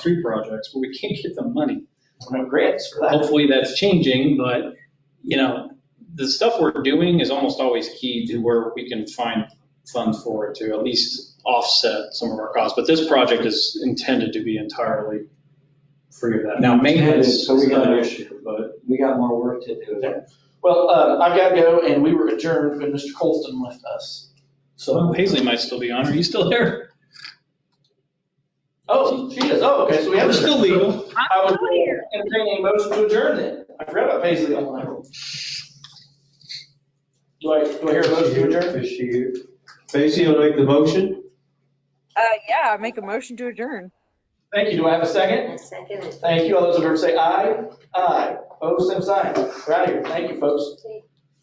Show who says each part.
Speaker 1: three projects, but we can't get the money.
Speaker 2: No grants for that.
Speaker 1: Hopefully that's changing, but, you know, the stuff we're doing is almost always key to where we can find funds for it to at least offset some of our costs. But this project is intended to be entirely free of that. Now, maintenance.
Speaker 2: So we got an
Speaker 1: issue, but.
Speaker 2: We got more work to do there.
Speaker 3: Well, um, I've got to go, and we were adjourned when Mr. Colston left us.
Speaker 1: Well,
Speaker 3: So,
Speaker 1: Paisley might still be on. Are you still there?
Speaker 3: oh, she is, oh, okay, so we have.
Speaker 1: We're still legal.
Speaker 3: I was entertaining a motion to adjourn then. I forgot about Paisley online. Do I, do I hear a motion to adjourn?
Speaker 4: Is she here? Tracy will make the motion?
Speaker 5: Uh, yeah, make a motion to adjourn.
Speaker 3: Thank you, do I have a second?
Speaker 6: A second.
Speaker 3: Thank you, all those in favor say aye. Aye, opposed, same sign. We're out of here, thank you, folks.
Speaker 6: Take